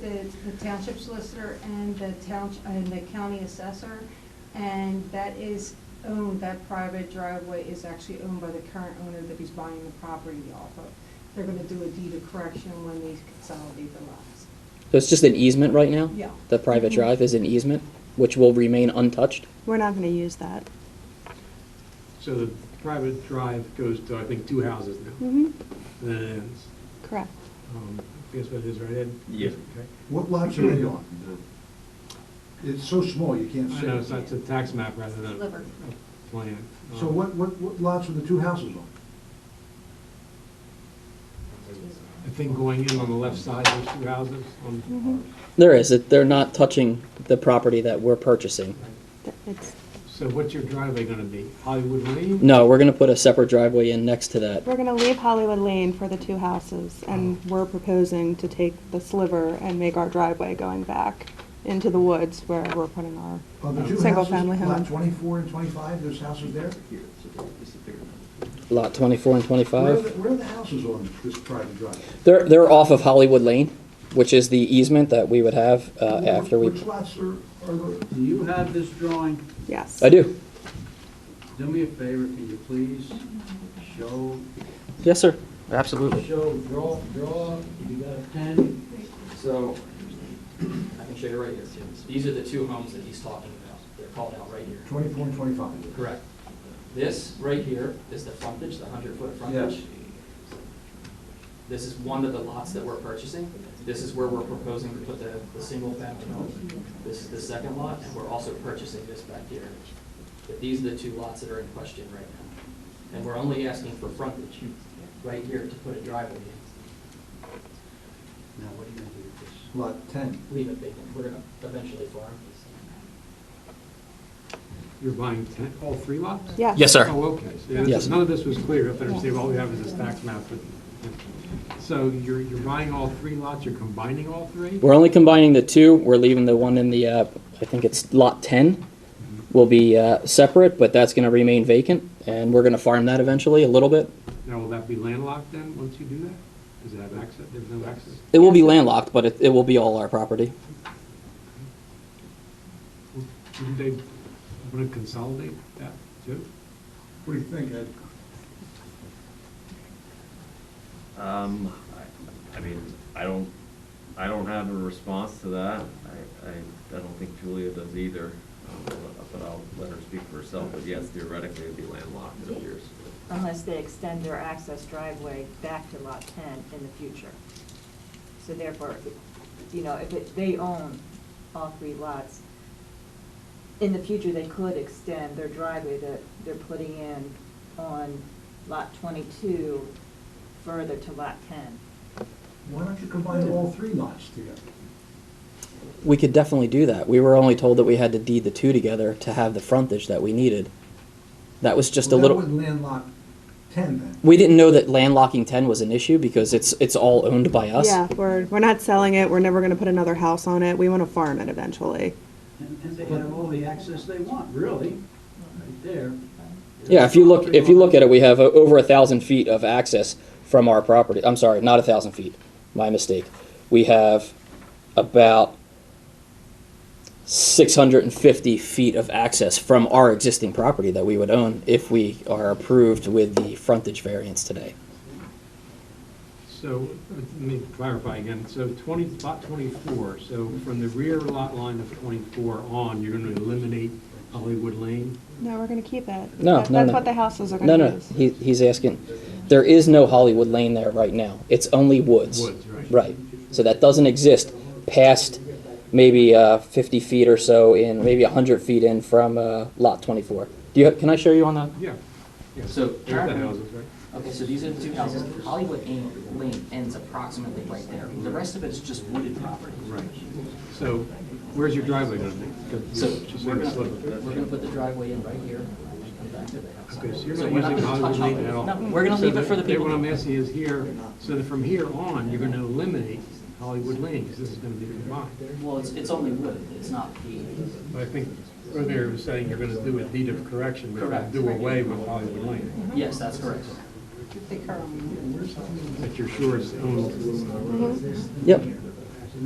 the the township solicitor and the town, and the county assessor, and that is owned, that private driveway is actually owned by the current owner that he's buying the property off of. They're gonna do a deed of correction when they consolidate the lots. So it's just an easement right now? Yeah. The private drive is an easement, which will remain untouched? We're not going to use that. So the private drive goes to, I think, two houses now, Mm-hmm. and then it ends. Correct. Um, I guess what it is, right, Ed? Yeah. Okay. What lots are they on? It's so small, you can't I see. know, it's not- it's a tax map rather than a Sliver. a plan. Um, So what, what, what lots are the two houses on? I think going in on the left side, there's two houses Mm-hmm. on, There is, it- they're not touching the property that we're purchasing. Th- It's, so what's your driveway gonna be? Hollywood Lane? No, we're gonna put a separate driveway in next to that. we're going to leave Hollywood Lane for the two houses, Oh. and we're proposing to take the sliver and make our driveway going back into the woods where we're putting our, On the two Single houses, family home. lot twenty-four and twenty-five, there's houses there? Lot twenty-four and Where are twenty-five. the- Where are the houses on this private drive? They're, they're off of Hollywood Lane, which is the easement that we would have uh, Wh- after we. Which lots are, are the? Do you have this drawing? yes. I do. Do me a favor, can you please show, Yes, sir. Absolutely. show, draw, draw, you got a pen? So, I can show you right here, Tim. So These are the two homes that he's talking about. They're called out right here. 24 and 25. Correct. This right here is the frontage, the hundred foot Yes. frontage. This is one of the lots that we're purchasing. This is where we're proposing to put the, the single family home. This is the second lot, and we're also purchasing this back here. But these are the two lots that are in question right now. And we're only asking for frontage right here to put a driveway in. Now, what are you gonna do with this? Lot 10. Leave it vacant. We're gonna eventually farm this. You're buying ten, all three lots? Yes. Yes, sir. Oh, okay. So yeah, Yes. this- None of this was clear, if I understand, all we have is this tax map. but- So you're, you're buying all three lots, you're combining all three? We're only combining the two. We're leaving the one in the, uh, I think it's lot ten, will be uh, separate, but that's gonna remain vacant, and we're gonna farm that eventually a little bit. Now, will that be landlocked then, once you do that? Does it have access, there's no access? It will be landlocked, but it, it will be all our property. Wouldn't they want to consolidate that too? What do you think, Ed? Um, I, I mean, I don't, I don't have a response to that. I, I, I don't think Julia does either, um, but I'll let her speak for herself, but yes, theoretically it'd be landlocked, it appears. unless they extend their access driveway back to Lot 10 in the future. So therefore, you know, if it- they own all three lots, in the future, they could extend their driveway that they're putting in on Lot 22 further to Lot 10. Why don't you combine all three lots together? We could definitely do that. We were only told that we had to deed the two together to have the frontage that we needed. That was just a Well, little. That would landlock 10 then. We didn't know that landlocking 10 was an issue because it's it's all owned by us. Yeah, we're, we're not selling it. We're never going to put another house on it. We want to farm it eventually. And, and they have all the access they want, really, right there. Yeah, if you look if you look at it, we have uh, over a thousand feet of access from our property. I'm sorry, not a thousand feet. My mistake. We have about 650 feet of access from our existing property that we would own if we are approved with the frontage variance today. So, let me clarify again, so 20, lot 24, so from the rear lot line of 24 on, you're going to eliminate Hollywood Lane? No, we're going to keep it. No, That- no, That's no. what the houses are No, going to no, use. he, he's asking. There is no Hollywood Lane there right now. It's only woods. Woods, right. Right. So that doesn't exist past maybe uh, 50 feet or so in, maybe 100 feet in from uh, lot 24. Do you, can I show you on that? Yeah. Yeah, So, There's the houses, right? Okay, so these are the two houses. Hollywood Lane Lane ends approximately right there. The rest of it is just wooded property. Right. So where's your driveway going to be? 'Cause So you're just we're saying it's gonna, little. we're gonna put the driveway in right here and come back to the house. Okay, so you're So not we're not using gonna touch Hollywood Lane at all? Hollywood. No, we're gonna So leave it for the people. What I'm asking is here, so that from here on, you're going to eliminate Hollywood Lane, because this is going to be combined. Well, it's, it's only wood, it's not paved. I think earlier was saying you're gonna do a deed of correction, we're gonna Correct. do away with Hollywood Lane, Yes, that's correct. They currently. that you're sure is owned. Yep.